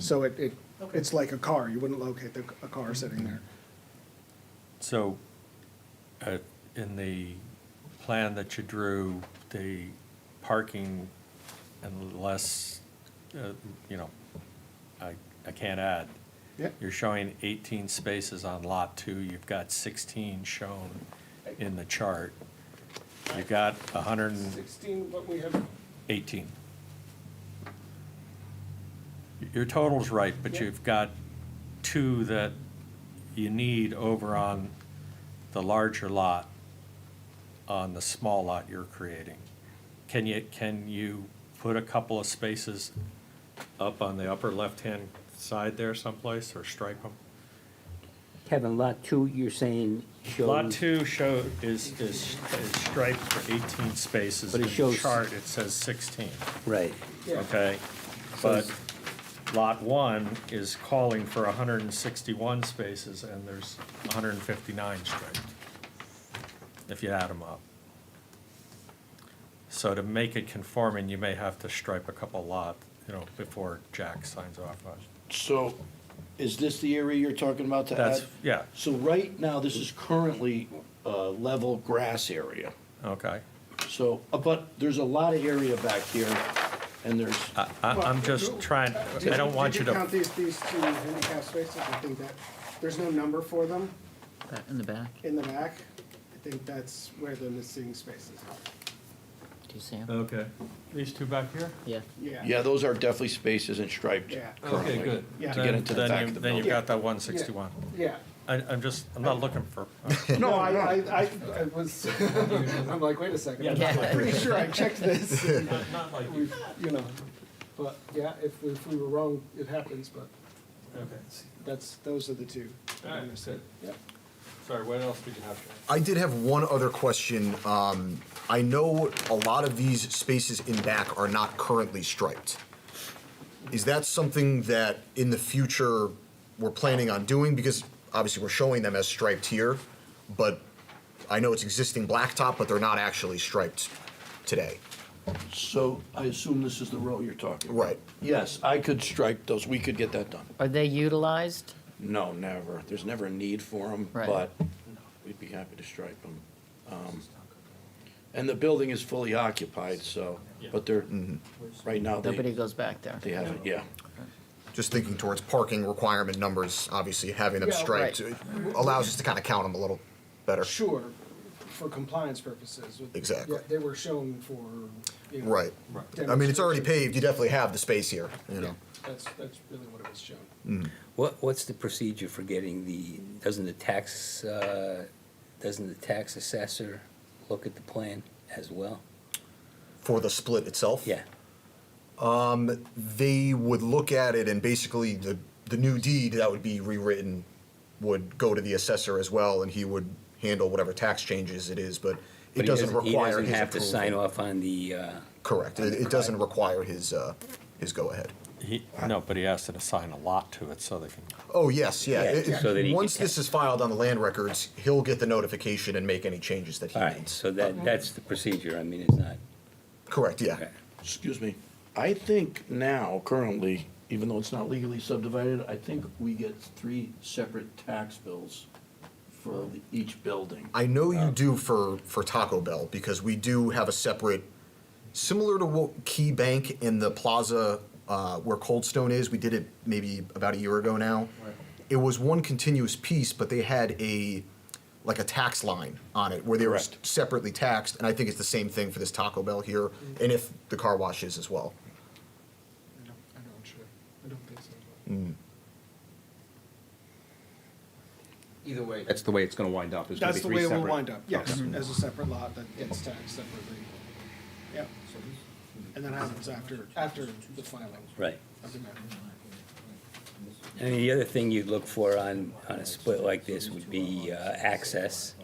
So it, it, Okay. it's like a car, you wouldn't locate the, a car sitting there. So, uh, in the plan that you drew, the parking unless, uh, you know, I, I can't add. Yeah. You're showing 18 spaces on Lot 2, you've got 16 shown in the chart. You've got 118. Sixteen, but we have, Your total's right, but Yeah. you've got two that you need over on the larger lot, on the small lot you're creating. Can you, can you put a couple of spaces up on the upper left-hand side there someplace, or strike them? Kevin, lot two, you're saying shows. Lot two show, is, is is striped for 18 spaces. But it In the shows- Chart, it says 16, Right, yeah, okay? But lot one is calling for 161 spaces, and there's 159 striped, if you add them up. So to make it conforming, you may have to stripe a couple lot, you know, before Jack signs off on it. So, is this the area you're talking about to add? That's, yeah, So right now, this is currently uh, level grass area. okay. So, uh, but there's a lot of area back here, and there's, I, I- I'm just trying, I don't want you Did count to, these, these two handicap spaces? I think that, there's no number for them That in the back, in the back. I think that's where the missing spaces are. do you see him? okay. These two back here? Yeah, Yeah. yeah, those are definitely spaces and striped Yeah. currently. Yeah. To get into the Then- back then of the you- Then you've building. got that 161. Yeah. I, I'm just, I'm not looking for, No, I, I, I, I was, I'm like, wait a second, I'm pretty sure I checked this, not not like, We've- you know. But, yeah, if, if we were wrong, it happens, but okay. that's, those are the two. that I Alright, missed. good. Yep. Sorry, what else did you have? I did have one other question. Um, I know a lot of these spaces in back are not currently striped. Is that something that in the future we're planning on doing? Because obviously we're showing them as striped here, but I know it's existing blacktop, but they're not actually striped today. So I assume this is the row you're talking about? Right. Yes, I could stripe those, we could get that done. are they utilized? No, never, there's never a need for them, Right. but we'd be happy to stripe them. And the building is fully occupied, so, but they're, right now, Mm-hmm. Nobody they, goes back there. they haven't, yeah. Just thinking towards parking requirement numbers, obviously having them Yeah, striped right. it allows us to kind of count them a little better. Sure, for compliance purposes. with- Exactly. yeah, They were shown for, you know. Right. I mean, it's already paved. You definitely have the space here, you know. Yeah, That's, that's really what it was shown. What, what's the procedure for getting the, doesn't the tax, uh, doesn't the tax assessor look at the plan as well? For the split itself? Um, Yeah, They would look at it and basically the, the new deed that would be rewritten would go to the assessor as well and he would handle whatever tax changes it is, but it But he doesn't he require doesn't his have to sign approval. off on the, uh, Correct. It, it doesn't require his, uh, his go-assigned. He, no, but he asked to assign a lot to it so they can, Oh, yes, yeah. Yeah, It- it- so that he Once can- this is filed on the land records, he'll get the notification and make any changes that he all right, needs. so that, that's the procedure, I mean, it's not, Correct, yeah. okay. Excuse me, I think now currently, even though it's not legally subdivided, I think we get three separate tax bills for the- each building. I know you do for, for Taco Bell because we do have a separate, similar to what Key Bank in the plaza uh, where Cold Stone is. We did it maybe about a year ago now. It was one continuous piece, but they had a like a tax line on it where they were Correct. s- separately taxed, and I think it's the same thing for this Taco Bell here, and if the car wash is as well. I don't, I don't sure, I don't think so. Mm, Either way, that's the way it's gonna wind up, is gonna be That's the three way separate. we'll wind up, yes, Okay. Mm-hmm. as a separate lot that gets taxed separately. Yeah, and that happens after, after the filing right. of the matter. And the other thing you'd look for on, on a split like this would be uh, access,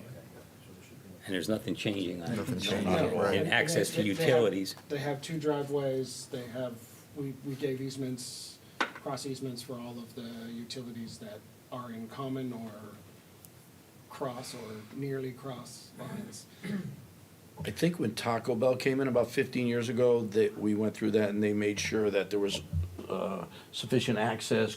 and there's nothing changing on it. Nothing's changing, right. And access to They- they- they have- utilities, They have two driveways, they have, we, we gave easements, cross easements for all of the utilities that are in common or cross or nearly cross lines. I think when Taco Bell came in about fifteen years ago, that we went through that and they made sure that there was uh, sufficient access,